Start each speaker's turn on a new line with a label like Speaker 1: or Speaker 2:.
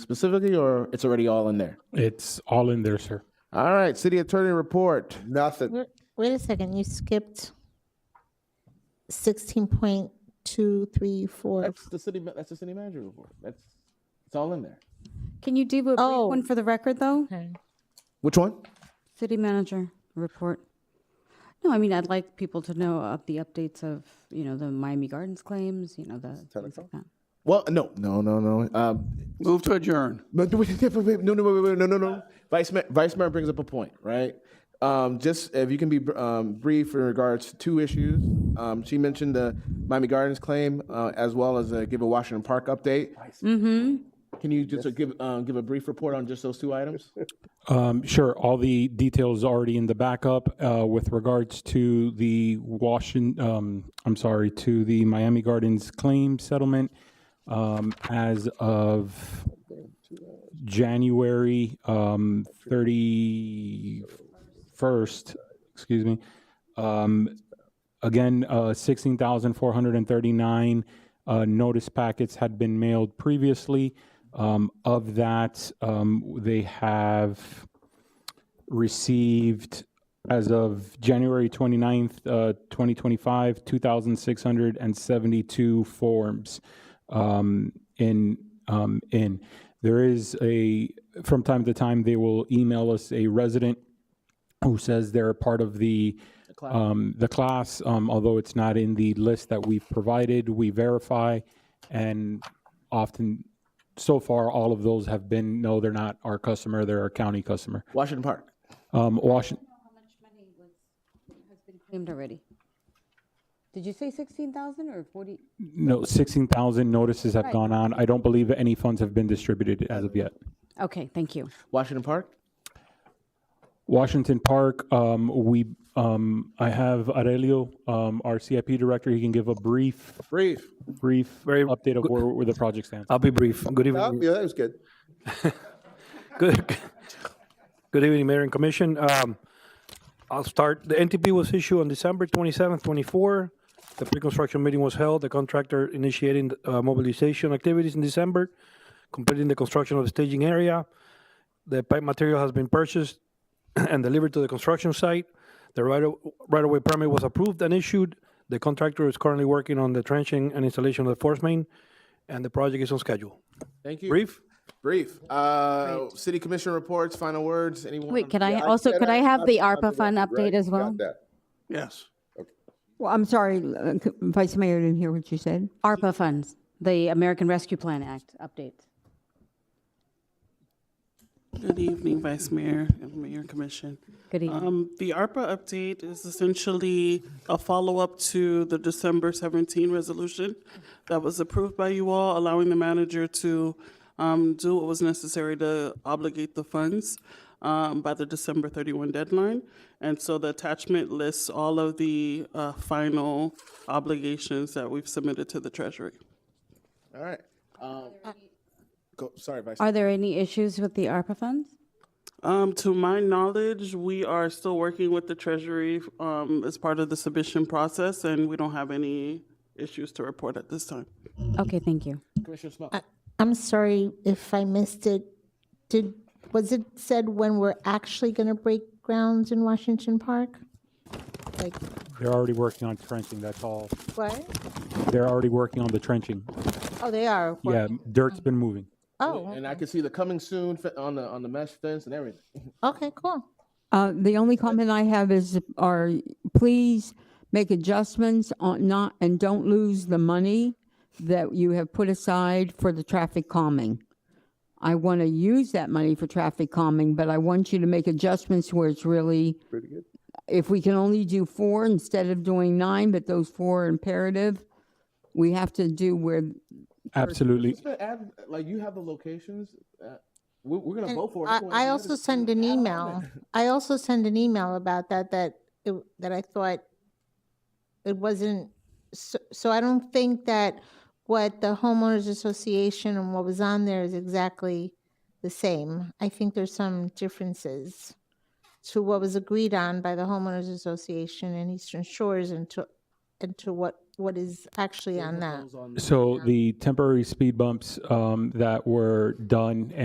Speaker 1: specifically, or it's already all in there?
Speaker 2: It's all in there, sir.
Speaker 1: All right, city attorney report.
Speaker 3: Nothing.
Speaker 4: Wait- Wait a second, you skipped sixteen point two, three, four.
Speaker 1: That's the city. ma- That's the city manager report. That's it's all in there.
Speaker 5: Can you do a brief
Speaker 4: Oh.
Speaker 5: one for the record, though?
Speaker 1: Which one?
Speaker 5: City manager report. No, I mean, I'd like people to know of the updates of, you know, the Miami Gardens claims, you know, the things like that.
Speaker 1: Well, no, no, no, no. Um,
Speaker 6: Move to adjourn.
Speaker 1: But do we- no, no, wait, wait, wait, no, no, no. Vice Mayor, Vice Mayor brings up a point, right? Um, just if you can be um, brief in regards to two issues. Um, she mentioned the Miami Gardens claim uh, as well as uh give a Washington Park update. Can you just uh, give um, give a brief report on just those two items?
Speaker 2: Um, sure, all the details already in the backup uh, with regards to the Washington, um, I'm sorry, to the Miami Gardens claim settlement um, as of January um, 31st, excuse me. Um, Again, uh, 16,439 uh, notice packets had been mailed previously. Um, Of that, um, they have received, as of January 29th, uh, 2025, 2,672 forms um, in. um, in. There is a, from time to time, they will email us a resident who says they're a part of the um, the class, um, although it's not in the list that we've provided. We verify, and often, so far, all of those have been no, they're not our customer. They're our county customer.
Speaker 1: Washington Park.
Speaker 2: Um, Washington.
Speaker 5: Claimed already. Did you say 16,000 or 40?
Speaker 2: No, 16,000 notices have gone on. I don't believe any funds have been distributed as of yet.
Speaker 5: Okay, thank you.
Speaker 1: Washington Park.
Speaker 2: Washington Park, um, we, um, I have Aurelio, um, our CIP director. He can give a brief,
Speaker 1: Brief.
Speaker 2: brief
Speaker 7: Very
Speaker 2: update of where, where the project stands.
Speaker 7: I'll be brief. Good
Speaker 3: Oh,
Speaker 7: evening.
Speaker 3: Yeah, that was good.
Speaker 7: Good. Good evening, Mayor and Commission. Um, I'll start. The NTP was issued on December 27th, 24. The pre-construction meeting was held. The contractor initiating uh, mobilization activities in December, completing the construction of the staging area. The pipe material has been purchased and delivered to the construction site. The right of- right-of-way permit was approved and issued. The contractor is currently working on the trenching and installation of the force main, and the project is on schedule.
Speaker 1: Thank you.
Speaker 7: Brief?
Speaker 1: Brief. Uh, city commission reports. Final words. Anyone?
Speaker 5: Wait, can I also, could I have the ARPA fund update as well?
Speaker 3: Got that.
Speaker 6: Yes.
Speaker 8: Well, I'm sorry, uh, c- Vice Mayor didn't hear what you said.
Speaker 5: ARPA funds, the American Rescue Plan Act update.
Speaker 9: Good evening, Vice Mayor and Mayor Commission.
Speaker 5: Good evening.
Speaker 9: Um, The ARPA update is essentially a follow-up to the December 17 resolution that was approved by you all, allowing the manager to um, do what was necessary to obligate the funds um, by the December 31 deadline. And so the attachment lists all of the uh, final obligations that we've submitted to the Treasury.
Speaker 1: All right. Um, go, sorry, Vice.
Speaker 5: Are there any issues with the ARPA funds?
Speaker 9: Um, to my knowledge, we are still working with the Treasury um, as part of the submission process, and we don't have any issues to report at this time.
Speaker 5: Okay, thank you.
Speaker 1: Commissioner Small.
Speaker 4: I'm sorry if I missed it. Did, was it said when we're actually gonna break grounds in Washington Park? Like,
Speaker 2: They're already working on trenching. That's all.
Speaker 4: what?
Speaker 2: They're already working on the trenching.
Speaker 4: Oh, they are.
Speaker 2: Yeah, dirt's been moving.
Speaker 4: Oh,
Speaker 1: and I can see the coming soon fe- on the on the mesh fence and everything.
Speaker 4: okay, cool.
Speaker 8: Uh, The only comment I have is, are, please make adjustments on not, and don't lose the money that you have put aside for the traffic calming. I want to use that money for traffic calming, but I want you to make adjustments where it's really, if we can only do four instead of doing nine, but those four are imperative, we have to do where
Speaker 2: Absolutely.
Speaker 1: Just gonna add, like you have the locations. Uh, we, we're gonna
Speaker 4: And
Speaker 1: vote for it.
Speaker 4: I,
Speaker 1: anyway.
Speaker 4: I
Speaker 1: You
Speaker 4: also
Speaker 1: just-
Speaker 4: send an email. I also send an email about that, that, it, that I thought it wasn't, so, so I don't think that what the homeowners association and what was on there is exactly the same. I think there's some differences to what was agreed on by the homeowners association and Eastern Shores and to, and to what what is actually on that.
Speaker 2: So the temporary speed bumps um, that were done